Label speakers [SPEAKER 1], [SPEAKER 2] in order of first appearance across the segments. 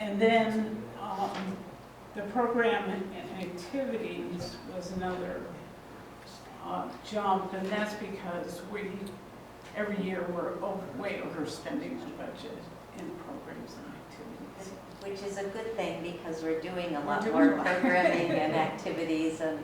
[SPEAKER 1] And then, um, the program and activities was another, uh, jump, and that's because we, every year, we're over, way overspending the budget in programs and activities.
[SPEAKER 2] Which is a good thing because we're doing a
[SPEAKER 1] We're
[SPEAKER 2] lot
[SPEAKER 1] doing
[SPEAKER 2] more
[SPEAKER 1] a lot.
[SPEAKER 2] programming and activities and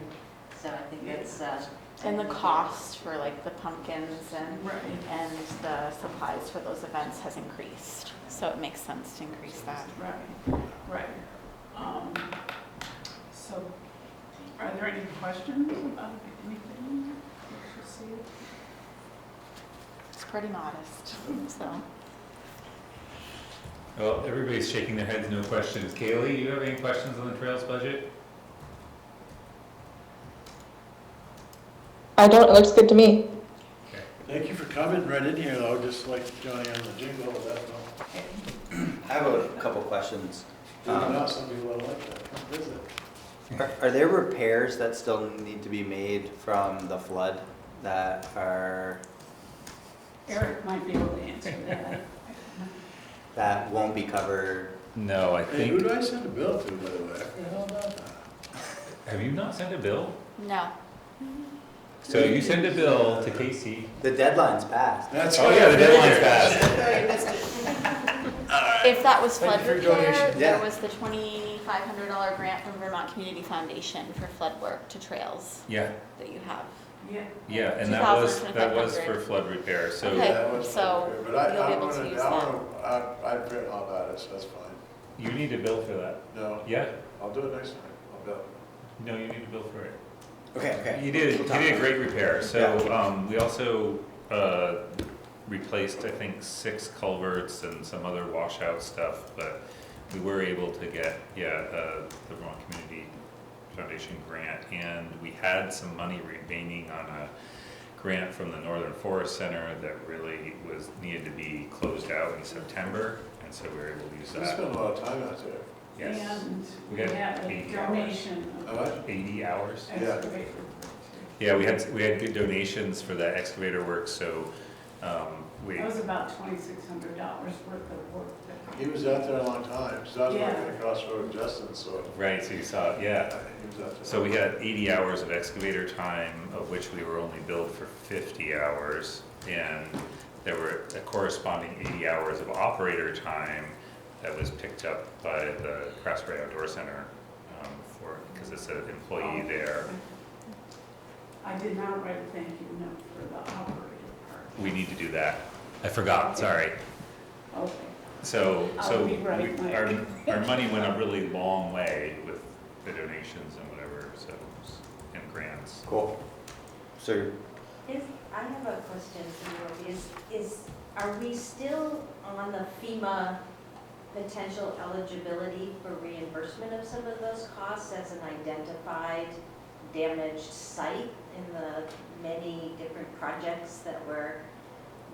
[SPEAKER 2] so I think it's. uh,
[SPEAKER 3] And the cost for like the pumpkins and,
[SPEAKER 1] Right,
[SPEAKER 3] and the supplies for those events has increased. So it makes sense to increase that.
[SPEAKER 1] right, right. Um, so, are there any questions about anything? that you see?
[SPEAKER 3] It's pretty modest, so.
[SPEAKER 4] Well, everybody's shaking their heads, no questions. Kaylee, you have any questions on the trails budget?
[SPEAKER 5] I don't, it looks good to me.
[SPEAKER 6] Thank you for coming right in here, though, just like Johnny on the jingle, that's all.
[SPEAKER 7] I have a couple questions.
[SPEAKER 4] Uh-huh.
[SPEAKER 6] Even
[SPEAKER 7] Um,
[SPEAKER 6] now, some people don't like that, come visit.
[SPEAKER 7] Are are there repairs that still need to be made from the flood that are,
[SPEAKER 1] Eric might be able to answer that.
[SPEAKER 7] that won't be covered?
[SPEAKER 4] No, I
[SPEAKER 6] Hey, who do I send a bill to, by the way? I forget all about that.
[SPEAKER 4] Have you not sent a bill?
[SPEAKER 3] No,
[SPEAKER 4] So you send a bill to Casey.
[SPEAKER 7] The deadline's passed.
[SPEAKER 6] That's
[SPEAKER 4] Oh,
[SPEAKER 6] why
[SPEAKER 4] yeah, the
[SPEAKER 6] I'm here.
[SPEAKER 4] deadline's passed.
[SPEAKER 3] if that was flood
[SPEAKER 6] Thank you for your
[SPEAKER 3] repair,
[SPEAKER 6] donation.
[SPEAKER 3] there
[SPEAKER 7] Yeah.
[SPEAKER 3] was the twenty-five hundred dollar grant from Vermont Community Foundation for flood work to trails
[SPEAKER 4] Yeah,
[SPEAKER 3] that you have.
[SPEAKER 1] Yeah,
[SPEAKER 4] yeah, and that was,
[SPEAKER 3] 2,000,
[SPEAKER 4] that was
[SPEAKER 3] 2,500.
[SPEAKER 4] for flood repair, so.
[SPEAKER 3] Okay,
[SPEAKER 6] Yeah, that was
[SPEAKER 3] so
[SPEAKER 6] okay, but I-
[SPEAKER 3] you'll be
[SPEAKER 6] I
[SPEAKER 3] able to
[SPEAKER 6] wanna-
[SPEAKER 3] use
[SPEAKER 6] I
[SPEAKER 3] that.
[SPEAKER 6] wanna- I, I forget all about it, so that's fine.
[SPEAKER 4] You need a bill for that.
[SPEAKER 6] No,
[SPEAKER 4] Yeah,
[SPEAKER 6] I'll do it next time, I'll bill.
[SPEAKER 4] no, you need a bill for it.
[SPEAKER 7] Okay, okay.
[SPEAKER 4] He did, he
[SPEAKER 7] We'll talk
[SPEAKER 4] did a
[SPEAKER 7] about
[SPEAKER 4] great repair, so,
[SPEAKER 7] Yeah.
[SPEAKER 4] um, we also, uh, replaced, I think, six culverts and some other washout stuff, but we were able to get, yeah, uh, the Vermont Community Foundation grant, and we had some money remaining on a grant from the Northern Forest Center that really was, needed to be closed out in September, and so we were able to use
[SPEAKER 6] I spent
[SPEAKER 4] that.
[SPEAKER 6] a lot of time out there.
[SPEAKER 4] Yes,
[SPEAKER 1] and we
[SPEAKER 4] We had
[SPEAKER 1] had a
[SPEAKER 4] eighty
[SPEAKER 1] donation
[SPEAKER 6] I
[SPEAKER 1] of
[SPEAKER 6] like
[SPEAKER 4] eighty hours.
[SPEAKER 6] Yeah.
[SPEAKER 1] excavator.
[SPEAKER 4] Yeah, we had, we had good donations for that excavator work, so, um, we,
[SPEAKER 1] That was about twenty-six hundred dollars worth of work that.
[SPEAKER 6] it. He was out there a long time, so I was
[SPEAKER 1] Yeah.
[SPEAKER 6] working across the road with Justin, so
[SPEAKER 4] right, so you saw, it, yeah.
[SPEAKER 6] he was out there.
[SPEAKER 4] So we had eighty hours of excavator time, of which we were only billed for fifty hours. And there were a corresponding eighty hours of operator time that was picked up by the Craftsbury Outdoor Center, um, for, because it's an employee there.
[SPEAKER 1] I did not write a thank you note for the operator
[SPEAKER 4] We need to do that. I forgot, sorry.
[SPEAKER 1] part. Okay.
[SPEAKER 4] So, so
[SPEAKER 1] I'll be right
[SPEAKER 4] we- our, our money went a really long way with the donations and whatever, so, and grants.
[SPEAKER 7] it. Cool. So,
[SPEAKER 2] Is, I have a question for you, is, is, are we still on the FEMA potential eligibility for reimbursement of some of those costs as an identified damaged site in the many different projects that were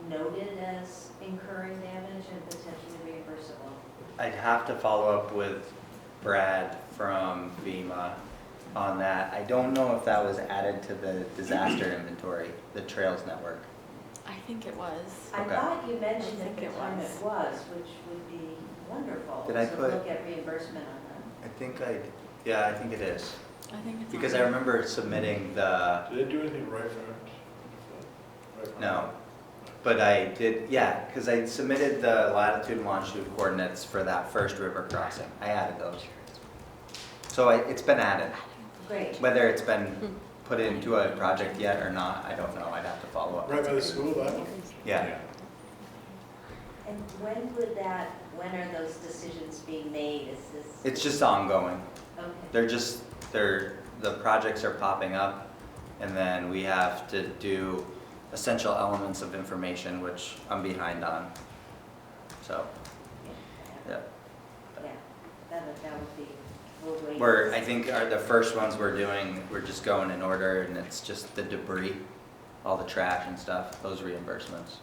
[SPEAKER 2] noted as incurring damage and potentially reimbursable?
[SPEAKER 7] I'd have to follow up with Brad from FEMA on that. I don't know if that was added to the disaster inventory, the Trails Network.
[SPEAKER 3] I think it was.
[SPEAKER 2] I
[SPEAKER 7] Okay.
[SPEAKER 2] thought you mentioned
[SPEAKER 3] I
[SPEAKER 2] at
[SPEAKER 3] think
[SPEAKER 2] the
[SPEAKER 3] it
[SPEAKER 2] time
[SPEAKER 3] was.
[SPEAKER 2] it was, which would be wonderful.
[SPEAKER 7] Did I
[SPEAKER 2] to
[SPEAKER 7] put-
[SPEAKER 2] look at reimbursement on that.
[SPEAKER 7] I think I, yeah, I think it is.
[SPEAKER 3] I think it's.
[SPEAKER 7] Because
[SPEAKER 3] on
[SPEAKER 7] I
[SPEAKER 3] there.
[SPEAKER 7] remember submitting the,
[SPEAKER 6] Did they do anything right for it? Right for
[SPEAKER 7] no, But I did, yeah, because I submitted the latitude and longitude coordinates for that first river crossing. I added those. So I, it's been added.
[SPEAKER 2] Great.
[SPEAKER 7] Whether it's been put into a project yet or not, I don't know. I'd have to follow
[SPEAKER 6] it?
[SPEAKER 7] up.
[SPEAKER 6] Right by the school, that one?
[SPEAKER 7] Yeah.
[SPEAKER 2] And when would that, when are those decisions being made? Is this,
[SPEAKER 7] It's just ongoing.
[SPEAKER 2] okay,
[SPEAKER 7] They're just, they're, the projects are popping up. And then we have to do essential elements of information, which I'm behind on. So, yeah.
[SPEAKER 2] yeah, that would, that would be, we'll wait.
[SPEAKER 7] We're, I think are the first ones we're doing, we're just going in order and it's just the debris, all the trash and stuff, those reimbursements.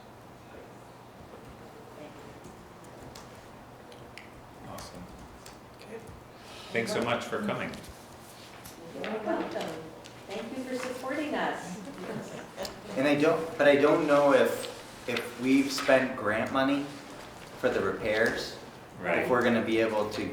[SPEAKER 4] Awesome. Thanks so much for coming.
[SPEAKER 2] You're welcome. Thank you for supporting us.
[SPEAKER 7] And I don't, but I don't know if, if we've spent grant money for the repairs.
[SPEAKER 4] Right.
[SPEAKER 7] If we're gonna be able to